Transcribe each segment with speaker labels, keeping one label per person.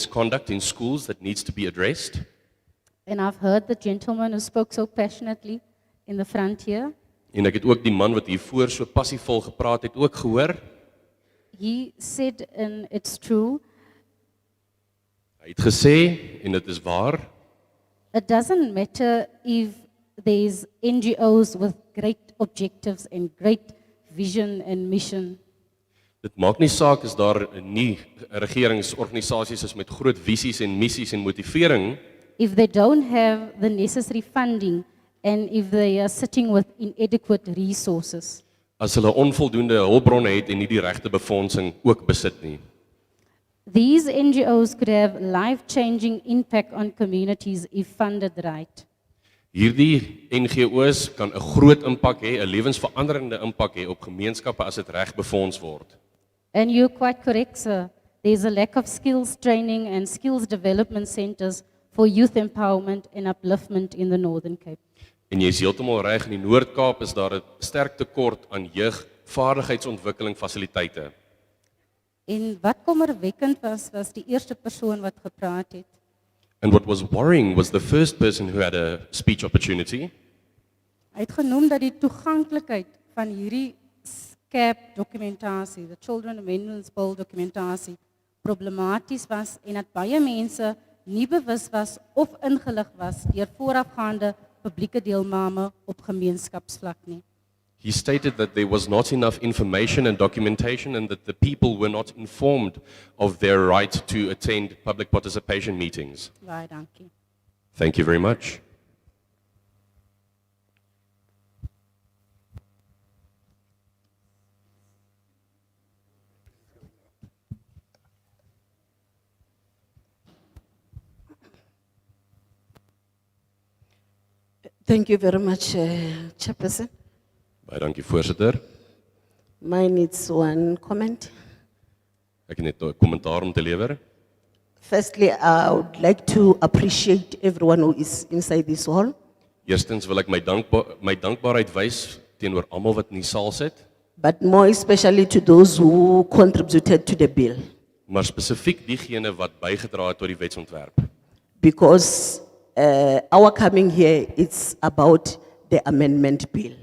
Speaker 1: misconduct in schools that needs to be addressed.
Speaker 2: And I've heard the gentleman who spoke so passionately in the front here.
Speaker 1: En ek het ook die man wat hiervoor so passievol gepraat het ook gehoor.
Speaker 2: He said, and it's true,
Speaker 1: Hy het gesê en dit is waar,
Speaker 2: it doesn't matter if there's NGOs with great objectives and great vision and mission.
Speaker 1: dit maak nie saak as daar nie regeringsorganisasies is met groot visies en missies en motivering
Speaker 2: If they don't have the necessary funding and if they are sitting with inadequate resources.
Speaker 1: as hulle onvoldoende hulpbronne het en nie die regte befondsing ook besit nie.
Speaker 2: These NGOs could have life changing impact on communities if funded right.
Speaker 1: Hierdie NGO's kan 'n groot impak hê, 'n lewensveranderende impak hê op gemeenskappe as dit reg befonds word.
Speaker 2: And you're quite correct, sir. There's a lack of skills training and skills development centers for youth empowerment and upliftment in the Northern Cape.
Speaker 1: En jy is heeltemal reg, in die Noord-Kaap is daar 'n sterk tekort aan jeugvaardigheidsontwikkeling fasiliteite.
Speaker 2: En wat kommerwekkend was was die eerste persoon wat gepraat het.
Speaker 1: And what was worrying was the first person who had a speech opportunity.
Speaker 2: Hy het genoem dat die toeganklikheid van hierdie SCAP dokumentasie, the Children Amendments Bill dokumentasie, problematies was en dat baie mense nie bewus was of ingelig was deur voorafgaande publieke deelname op gemeenskapsvlak nie.
Speaker 1: He stated that there was not enough information and documentation and that the people were not informed of their right to attend public participation meetings.
Speaker 2: Baie dankie.
Speaker 1: Thank you very much.
Speaker 3: Thank you very much, uh, Chairperson.
Speaker 1: Baie dankie voorsitter.
Speaker 3: Mine is one comment.
Speaker 1: Ek het net 'n kommentaar om te lewer.
Speaker 3: Firstly, I would like to appreciate everyone who is inside this hall
Speaker 1: Eerstens wil ek my dankba my dankbaarheid wys teenoor almal wat in die saal sit,
Speaker 3: but more especially to those who contributed to the bill,
Speaker 1: maar spesifiek diegene wat bygedra het tot die wetsontwerp.
Speaker 3: because uh, our coming here is about the amendment bill.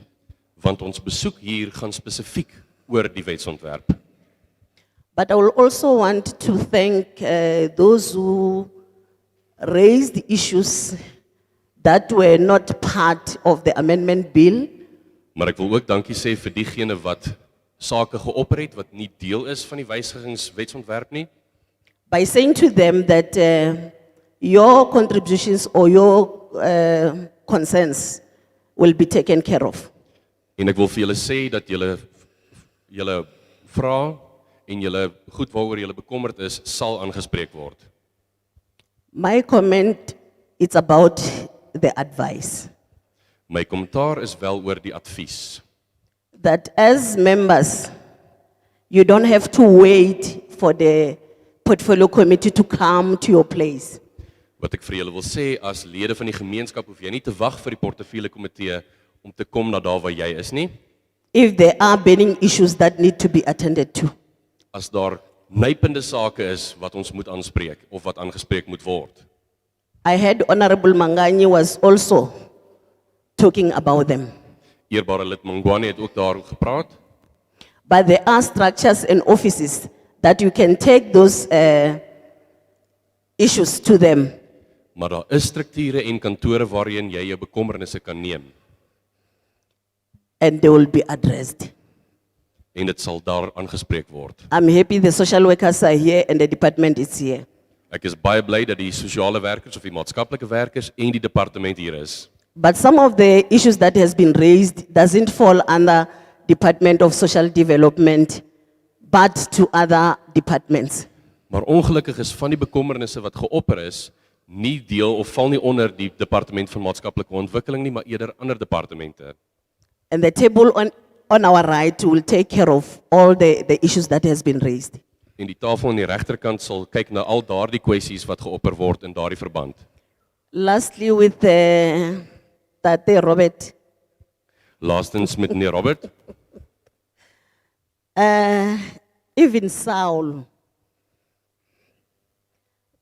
Speaker 1: want ons besoek hier gaan spesifiek oor die wetsontwerp.
Speaker 3: But I will also want to thank uh, those who raised issues that were not part of the amendment bill,
Speaker 1: Maar ek wil ook dankie sê vir diegene wat sake geopper het wat nie deel is van die wysigingswetsontwerp nie
Speaker 3: by saying to them that uh, your contributions or your uh, concerns will be taken care of.
Speaker 1: en ek wil vir julle sê dat julle julle vra en julle goed waaroor julle bekommerd is sal aangespreek word.
Speaker 3: My comment is about the advice
Speaker 1: My kommentaar is wel oor die advies
Speaker 3: that as members, you don't have to wait for the portfolio committee to come to your place.
Speaker 1: wat ek vir julle wil sê as lede van die gemeenskap hoef jy nie te wag vir die portefeulje komitee om te kom na daar waar jy is nie.
Speaker 3: If there are burning issues that need to be attended to,
Speaker 1: as daar nypende sake is wat ons moet aanspreek of wat aangespreek moet word.
Speaker 3: I heard Honorable Mangani was also talking about them.
Speaker 1: Eerbare lid Mangwane het ook daaroor gepraat,
Speaker 3: But there are structures and offices that you can take those uh, issues to them.
Speaker 1: maar daar is strukture en kantore waarheen jy jou bekommernisse kan neem
Speaker 3: and they will be addressed.
Speaker 1: en dit sal daar aangespreek word.
Speaker 3: I'm happy the social workers are here and the department is here.
Speaker 1: Ek is baie bly dat die sosiale werkers of die maatskaplike werkers en die departement hier is.
Speaker 3: But some of the issues that has been raised doesn't fall under Department of Social Development, but to other departments.
Speaker 1: Maar ongelukkig is van die bekommernisse wat geopper is, nie deel of val nie onder die departement van maatskaplike ontwikkeling nie, maar eerder ander departemente.
Speaker 3: And the table on, on our right will take care of all the, the issues that has been raised.
Speaker 1: En die tafel aan die regterkant sal kyk na al daardie kwessies wat geopper word in daardie verband.
Speaker 3: Lastly, with uh, Tate Robert,
Speaker 1: Laastens met meneer Robert,
Speaker 3: uh, even Saul